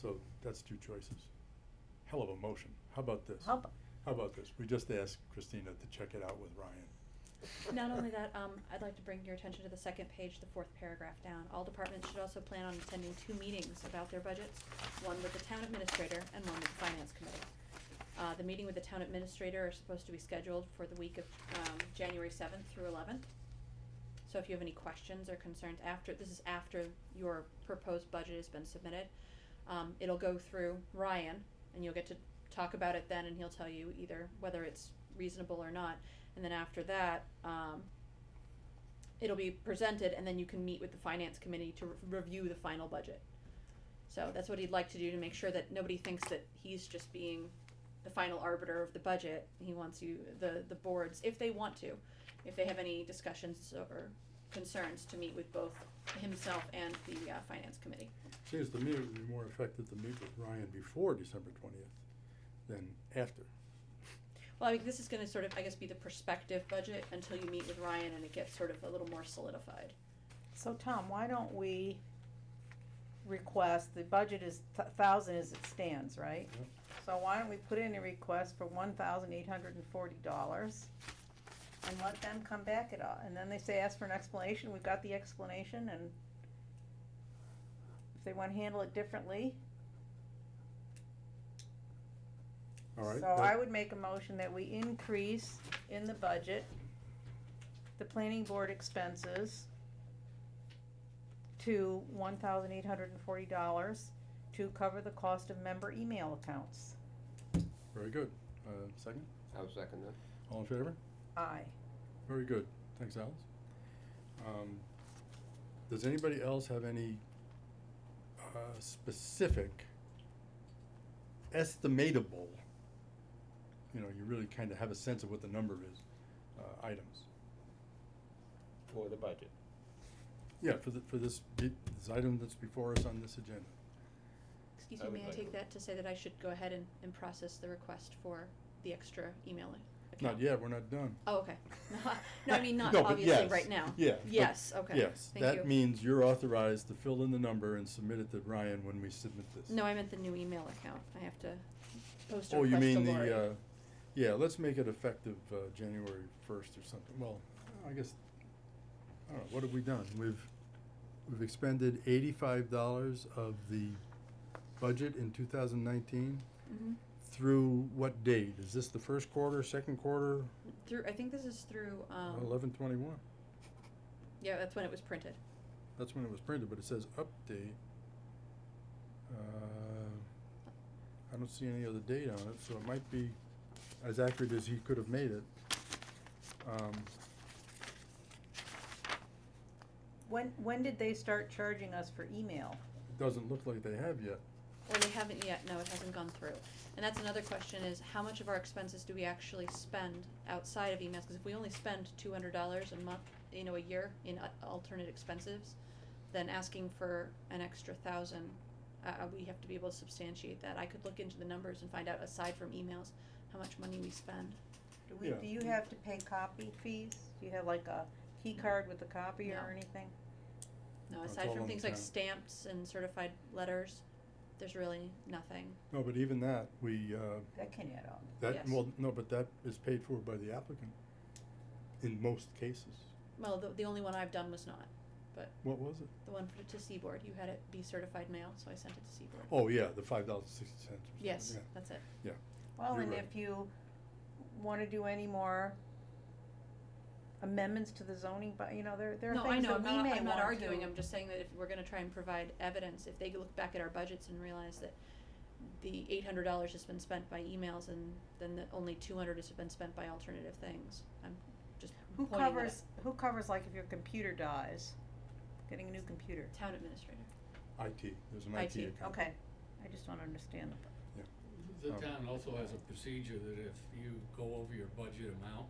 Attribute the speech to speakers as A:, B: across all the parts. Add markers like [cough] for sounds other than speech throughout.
A: So that's two choices. Hell of a motion. How about this?
B: How, ab-
A: How about this? We just asked Christina to check it out with Ryan.
B: not only that, um, I'd like to bring your attention to the second page, the fourth paragraph down. All departments should also plan on attending two meetings about their budgets, one with the town administrator and one with the finance committee. Uh, the meeting with the town administrator is supposed to be scheduled for the week of, um, January seventh through eleventh. So if you have any questions or concerns after, this is after your proposed budget has been submitted. Um, it'll go through Ryan and you'll get to talk about it then and he'll tell you either whether it's reasonable or not. And then after that, um, it'll be presented and then you can meet with the finance committee to re- review the final budget. So that's what he'd like to do to make sure that nobody thinks that he's just being the final arbiter of the budget. He wants you, the, the boards, if they want to, if they have any discussions or concerns, to meet with both himself and the, uh, finance committee.
A: Seems to me it would be more effective to meet with Ryan before December twentieth than after.
B: Well, I mean, this is gonna sort of, I guess, be the prospective budget until you meet with Ryan and it gets sort of a little more solidified.
C: So Tom, why don't we request, the budget is th- thousand as it stands, right?
A: Yep.
C: So why don't we put in a request for one thousand eight hundred and forty dollars? And let them come back at all, and then they say, ask for an explanation, we've got the explanation and if they wanna handle it differently.
A: All right?
C: So
A: that-
C: I would make a motion that we increase in the budget the planning board expenses to one thousand eight hundred and forty dollars to cover the cost of member email accounts.
A: Very good. Uh, second?
D: I'll second that.
A: All in favor?
C: Aye.
A: Very good. Thanks, Alice. Um, does anybody else have any, uh, specific, estimatable, you know, you really kinda have a sense of what the number is, uh, items?
D: For the budget.
A: Yeah, for the, for this, be- this item that's before us on this agenda.
B: Excuse
D: I
B: me,
D: would
B: may I
D: like
B: take
D: to-
B: that to say that I should go ahead and, and process the request for the extra emailing?
A: Not yet, we're not done.
B: Oh, okay. [laughs] No, I mean,
A: [laughs]
B: not
A: No, but
B: obviously
A: yes,
B: right now.
A: yeah, but
B: Yes, okay.
A: Yes,
B: Thank you.
A: that means you're authorized to fill in the number and submit it to Ryan when we submit this.
B: No, I meant the new email account. I have to post a
A: Oh, you
B: request to
A: mean
B: Lori.
A: the, uh, yeah, let's make it effective, uh, January first or something, well, I guess, I don't know, what have we done? We've, we've expended eighty-five dollars of the budget in two thousand nineteen
B: Mhm.
A: through what date? Is this the first quarter, second quarter,
B: Through, I think this is through, um,
A: eleven twenty-one?
B: yeah, that's when it was printed.
A: That's when it was printed, but it says update. Uh, I don't see any other date on it, so it might be as accurate as he could have made it. Um,
C: When, when did they start charging us for email?
A: it doesn't look like they have yet.
B: Well, they haven't yet, no, it hasn't gone through. And that's another question is, how much of our expenses do we actually spend outside of emails? Cause if we only spend two hundred dollars a month, you know, a year in a- alternate expenses, then asking for an extra thousand, uh, uh, we have to be able to substantiate that. I could look into the numbers and find out, aside from emails, how much money we spend.
C: Do we,
A: Yeah.
C: do you have to pay copy fees? Do you have like a key card with a copy
B: No.
C: or anything?
B: No,
A: That's
B: aside
A: all
B: from
A: on the
B: things like
A: town.
B: stamps and certified letters, there's really nothing.
A: No, but even that, we, uh,
C: That can add up.
A: that,
B: Yes.
A: well, no, but that is paid for by the applicant in most cases.
B: Well, the, the only one I've done was not,
A: What was it?
B: the one for, to Seaboard. You had it be certified mail, so I sent it to Seaboard.
A: Oh, yeah, the five dollars and sixty cents or something, yeah.
B: Yes, that's it.
C: Well,
A: You're
C: and
A: right.
C: if you wanna do any more amendments to the zoning, but, you know, there, there
B: No,
C: are
B: I
C: things
B: know,
C: that
B: I'm
C: we may want
B: not,
C: to.
B: I'm not arguing, I'm just saying that if we're gonna try and provide evidence, if they look back at our budgets and realize that the eight hundred dollars has been spent by emails and then the only two hundred has been spent by alternative things, I'm just
C: Who
B: pointing that
C: covers, who covers like if your computer dies, getting a new computer?
B: at town administrator.
A: IT, there's an IT
B: IT,
A: account.
C: Okay, I just wanna understand the,
E: The
A: Um,
E: town also has a procedure that if you go over your budget amount,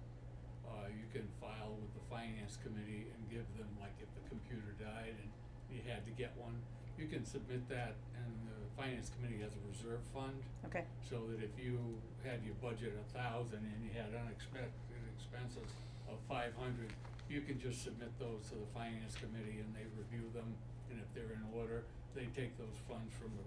E: uh, you can file with the finance committee and give them, like, if the computer died and you had to get one, you can submit that, and the finance committee has a reserve fund,
C: okay,
E: so that if you had your budget a thousand and you had unexpected expenses of five hundred, you can just submit those to the finance committee and they review them, and if they're in order, they take those funds from the